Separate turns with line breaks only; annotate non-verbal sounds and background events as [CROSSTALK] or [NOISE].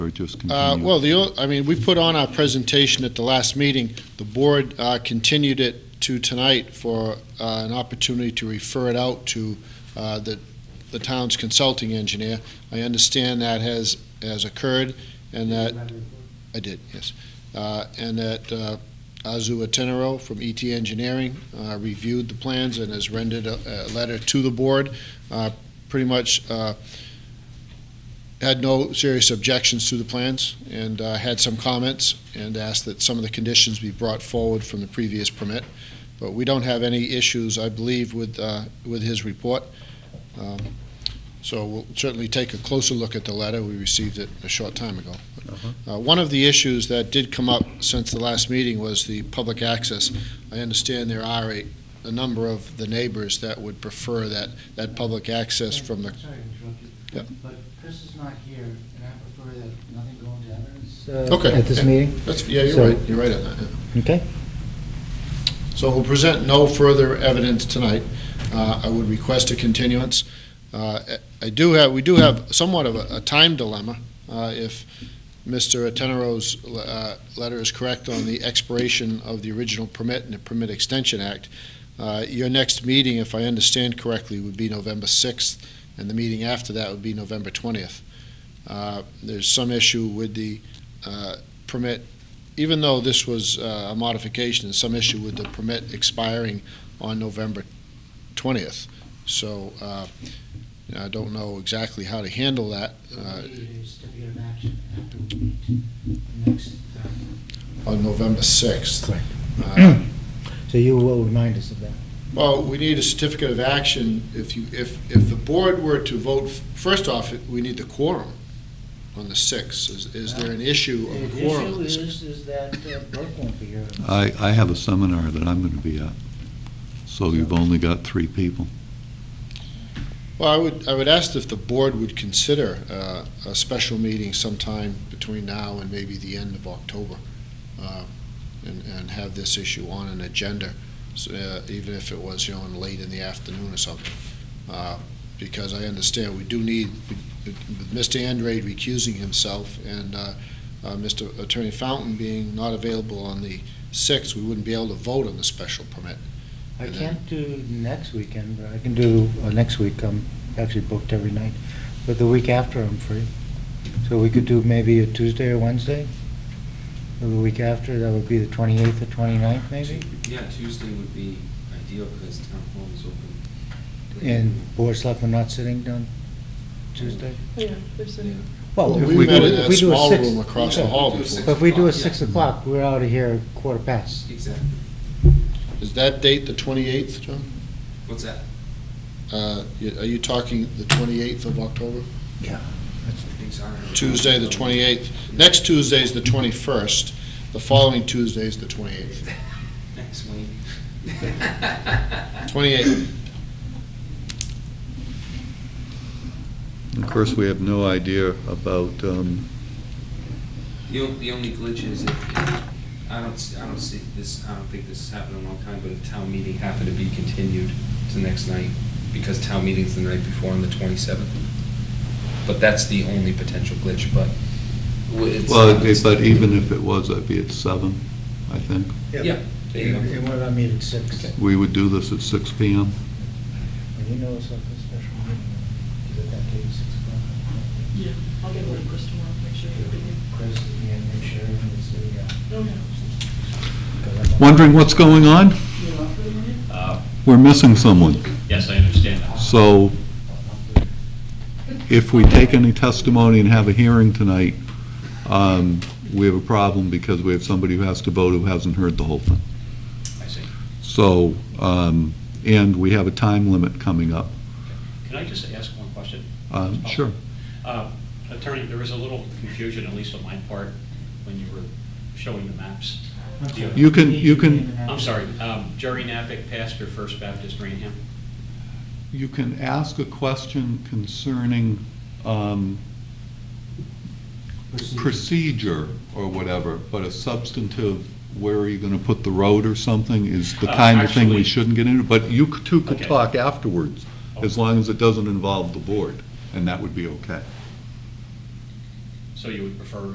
or just
Uh,
continue?
Well, the, o- I mean, we put on our presentation at the last meeting. The board uh, continued it to tonight for uh, an opportunity to refer it out to uh, the the town's consulting engineer. I understand that has, has occurred, and that, I did, yes. Uh, And that uh, Azu Atenero from ET Engineering uh, reviewed the plans and has rendered a a letter to the board, uh, pretty much uh, had no serious objections to the plans and uh, had some comments and asked that some of the conditions be brought forward from the previous permit. But we don't have any issues, I believe, with, uh, with his report. Um, So we'll certainly take a closer look at the letter. We received it a short time ago. Uh, One of the issues that did come up since the last meeting was the public access. I understand there are a, a number of the neighbors that would prefer that, that public access from the,
Sorry to interrupt you.
Yep.
But Chris is not here, and I prefer that nothing go into evidence.
uh,
Okay.
At this meeting,
That's- yeah, you're
So-
right, you're right on that. yeah.
okay?
So we'll present no further evidence tonight. Uh, I would request a continuance. Uh, I do have, we do have somewhat of a a time dilemma. Uh, If Mr. Atenero's uh, letter is correct on the expiration of the original permit and the Permit Extension Act, uh, your next meeting, if I understand correctly, would be November 6th, and the meeting after that would be November 20th. Uh, There's some issue with the uh, permit even though this was uh, a modification, there's some issue with the permit expiring on November 20th. So uh, I don't know exactly how to handle that uh,
It is to be an action after we meet the next. uh,
on November 6th.
Correct. [CLEARS THROAT]
Uh,
So you will remind us of that.
Well, we need a certificate of action if you, if, if the board were to vote, first off, we need the quorum on the 6th. Is- Is there an issue of a
The
quorum?
issue
on the 6th?
is, is that uh, Burke won't be here.
I, I have a seminar that I'm going to be at, so you've only got three people.
Well, I would, I would ask if the board would consider uh, a special meeting sometime between now and maybe the end of October, uh, and, and have this issue on an agenda, so, uh, even if it was, you know, in late in the afternoon or something. Uh, Because I understand we do need, with Mr. Andrade recusing himself and uh, uh, Mr. Attorney Fountain being not available on the 6th, we wouldn't be able to vote on the special permit.
I can't do next weekend, but I can do, uh, next week, I'm actually booked every night, but the week after I'm free. So we could do maybe a Tuesday or Wednesday, or the week after, that would be the 28th or 29th, maybe?
Yeah, Tuesday would be ideal because town hall is open.
And Board of Selectmen not sitting down Tuesday?
Yeah, there's
Yeah.
a.
Well,
Well,
if
we
we do,
met in
if
that
we do a
small
six-
room across the
yeah.
hall
Do a six
But if we do a
o'clock, yeah.
6 o'clock, we're out of here quarter past.
Exactly.
Is that date the 28th, John?
What's that?
Uh, y- Are you talking the 28th of October?
Things are-
Tuesday, the 28th. Next Tuesday is the 21st. The following Tuesday is the 28th.
[LAUGHS] Next
[LAUGHS]
week.
28th.
Of course, we have no idea about, um,
The only, the only glitch is if, I don't, s- I don't see this, I don't think this has happened in a long time, but if town meeting happened to be continued to next night, because town meeting's the night before on the twenty-seventh. But that's the only potential glitch, but w- it's.
well, it- but even if it was, I'd be at seven, I think.
Yeah. There you go.
And what about meet at 6?
Okay.
We would do this at six PM.
Well, you know it's like a special meeting, is it that day, six o'clock?
Yeah, I'll get a little crystal tomorrow, make sure
Should
you're
we
ready.
Chris, the admin, Sharon, uh, and Sue, yeah.
No, no.
'Cause I'm-
Wondering what's going on?
You're off for the morning?
Uh,
We're missing someone.
Yes, I understand that.
So if we take any testimony and have a hearing tonight, um, we have a problem because we have somebody who has to vote who hasn't heard the whole thing.
I see.
So, um, and we have a time limit coming up.
Can I just ask one question?
Um, Sure.
Uh, Attorney, there was a little confusion, at least on my part, when you were showing the maps.
I'm sorry.
You can- you can-
Name and
I'm
address.
soree um, Jerry Napick, pastor, First Baptist, Rainham.
You can ask a question concerning um, procedure or whatever, but a substantive, where are you going to put the road or something, is the
Uh,
kind of thing we
actually-
shouldn't get into. But you c- two could
Okay.
talk afterwards, as long as it doesn't involve the board, and that would be okay.
So you would prefer